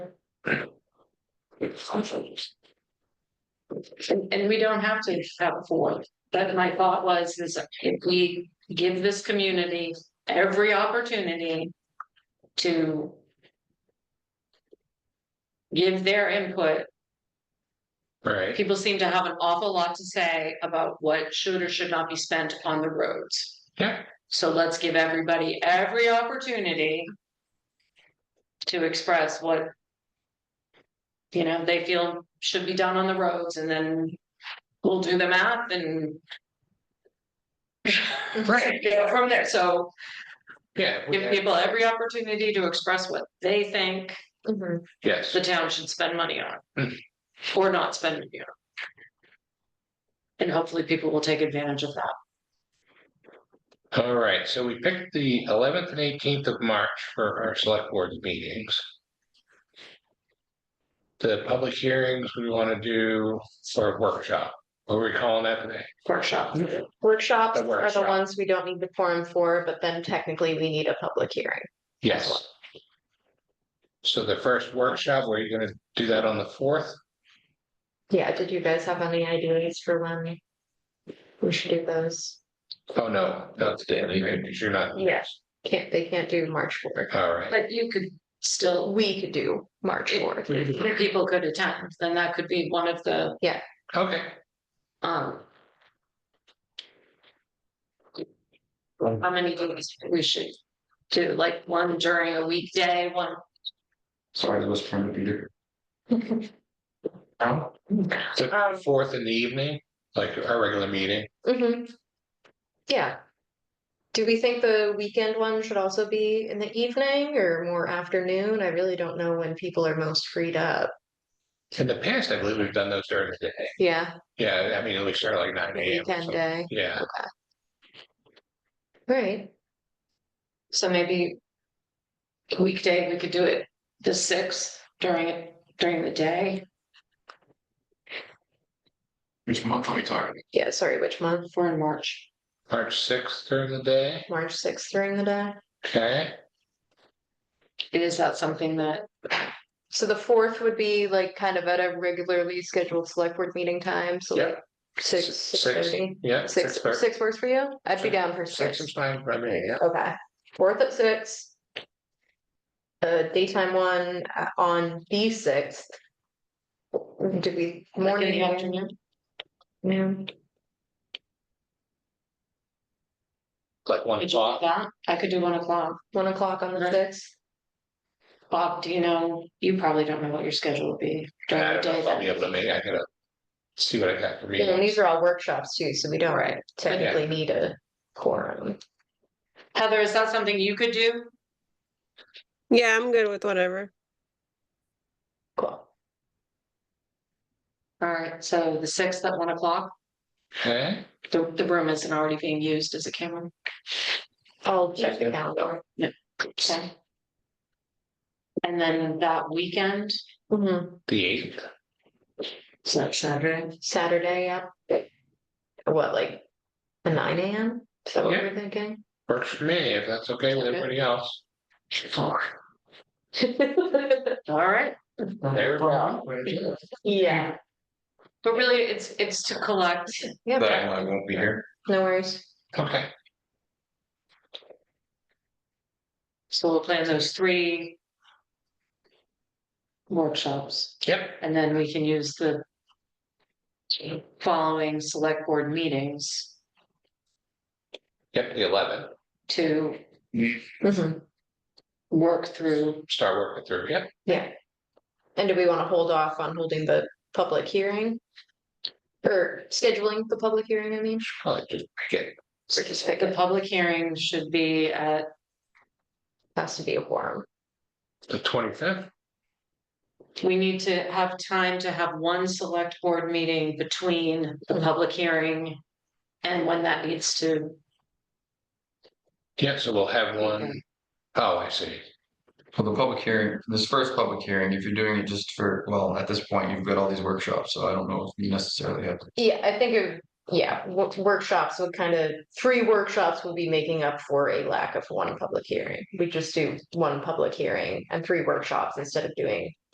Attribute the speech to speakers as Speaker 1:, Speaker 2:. Speaker 1: And, and we don't have to have a fourth, but my thought was, is if we give this community every opportunity to give their input,
Speaker 2: Right,
Speaker 1: people seem to have an awful lot to say about what should or should not be spent on the roads.
Speaker 2: yeah,
Speaker 1: So let's give everybody every opportunity to express what you know, they feel should be done on the roads and then we'll do the math and
Speaker 2: Right.
Speaker 1: go from there. So
Speaker 2: yeah, we-
Speaker 1: give people every opportunity to express what they think
Speaker 2: yes,
Speaker 1: the town should spend money on
Speaker 2: Mm.
Speaker 1: or not spend money on. And hopefully people will take advantage of that.
Speaker 2: all right, so we picked the eleventh and eighteenth of March for our select board meetings. The public hearings we want to do for a workshop, what are we calling that today?
Speaker 1: Workshop.
Speaker 3: Workshops
Speaker 2: Mm. The
Speaker 3: are the
Speaker 2: workshop.
Speaker 3: ones we don't need the forum for, but then technically we need a public hearing.
Speaker 2: Yes. So the first workshop, were you gonna do that on the fourth?
Speaker 3: Yeah, did you guys have any ideas for when we should do those?
Speaker 2: Oh, no, not today, because you're not.
Speaker 3: Yes. Can't, they can't do March fourth.
Speaker 2: All right,
Speaker 1: But you could still
Speaker 3: We could do March fourth.
Speaker 1: that people could attend, then that could be one of the,
Speaker 2: okay,
Speaker 1: um.
Speaker 2: Mm.
Speaker 1: How many days we should do, like one during a weekday, one,
Speaker 4: Sorry, I was trying to be there. Oh,
Speaker 2: the
Speaker 3: Um,
Speaker 2: fourth in the evening, like our regular meeting,
Speaker 3: Mhm. Yeah. Do we think the weekend one should also be in the evening or more afternoon? I really don't know when people are most freed up.
Speaker 2: in the past, I believe we've done those during the day,
Speaker 3: Yeah,
Speaker 2: yeah, I mean, at least start like nine AM. or
Speaker 3: weekend uh,
Speaker 2: something.
Speaker 3: day,
Speaker 2: Yeah,
Speaker 3: right?
Speaker 1: so maybe. a Weekday, we could do it the sixth during it, during the day,
Speaker 4: Which month are we talking?
Speaker 3: Yeah, sorry, which month?
Speaker 1: for in March.
Speaker 2: March sixth during the day,
Speaker 3: March sixth during the day?
Speaker 2: okay,
Speaker 1: Is that something that,
Speaker 3: So the fourth would be like kind of at a regularly scheduled select board meeting time, so
Speaker 2: Yeah.
Speaker 3: like six, six thirty.
Speaker 2: yeah.
Speaker 3: Six,
Speaker 2: thir-
Speaker 3: six works for you? I'd be
Speaker 2: Six-
Speaker 3: down for
Speaker 2: Six
Speaker 3: six.
Speaker 2: is fine for me, yeah,
Speaker 3: Okay, fourth at six. Uh, daytime one uh, on the sixth. Do we
Speaker 1: like in
Speaker 3: morning?
Speaker 1: the afternoon?
Speaker 3: Noon.
Speaker 2: like one
Speaker 1: Could you do
Speaker 2: o'clock,
Speaker 1: that? I could do one o'clock.
Speaker 3: One o'clock on the
Speaker 1: Right.
Speaker 3: sixth?
Speaker 1: Bob, do you know, you probably don't know what your schedule will be
Speaker 2: and I
Speaker 1: during the
Speaker 2: don't know
Speaker 1: day.
Speaker 2: if I'll be
Speaker 1: then.
Speaker 2: able to make, I gotta see what I got for
Speaker 3: And
Speaker 2: me.
Speaker 3: these are all workshops too, so we don't
Speaker 1: Right.
Speaker 3: technically need a quorum.
Speaker 1: Heather, is that something you could do?
Speaker 5: Yeah, I'm good with whatever.
Speaker 3: Cool.
Speaker 1: All right, so the sixth at one o'clock,
Speaker 2: Okay,
Speaker 1: the, the room isn't already being used as a camera.
Speaker 3: I'll check the calendar.
Speaker 1: Okay. And then that weekend,
Speaker 3: Mhm.
Speaker 2: the eighth,
Speaker 1: it's not Saturday,
Speaker 3: Saturday, yeah. What, like a nine AM? Is that what
Speaker 2: Yeah.
Speaker 3: we're thinking?
Speaker 2: works for me, if that's okay with
Speaker 1: Okay.
Speaker 2: everybody else,
Speaker 1: all right?
Speaker 2: there we go.
Speaker 3: Yeah,
Speaker 1: But really, it's, it's to collect,
Speaker 4: But
Speaker 3: yeah,
Speaker 4: I won't be here.
Speaker 3: no worries.
Speaker 2: Okay,
Speaker 1: so we'll plan those three workshops,
Speaker 2: yep,
Speaker 1: and then we can use the following select board meetings
Speaker 2: yep, the eleventh,
Speaker 1: to
Speaker 3: Mhm.
Speaker 1: work through,
Speaker 2: start working through, yep.
Speaker 3: Yeah. And do we want to hold off on holding the public hearing? Or scheduling the public hearing, I mean?
Speaker 2: Probably just get
Speaker 3: Or just pick
Speaker 1: the
Speaker 3: it,
Speaker 1: public hearing should be at
Speaker 3: has to be a quorum.
Speaker 2: the twenty-fifth,
Speaker 1: We need to have time to have one select board meeting between the public hearing and when that needs to.
Speaker 2: yeah, so we'll have one, oh, I see,
Speaker 4: For the public hearing, this first public hearing, if you're doing it just for, well, at this point, you've got all these workshops, so I don't know if you necessarily have. to.
Speaker 3: Yeah, I think of, yeah, wo- workshops would kind of, three workshops will be making up for a lack of one public hearing. We just do one public hearing and three workshops instead of doing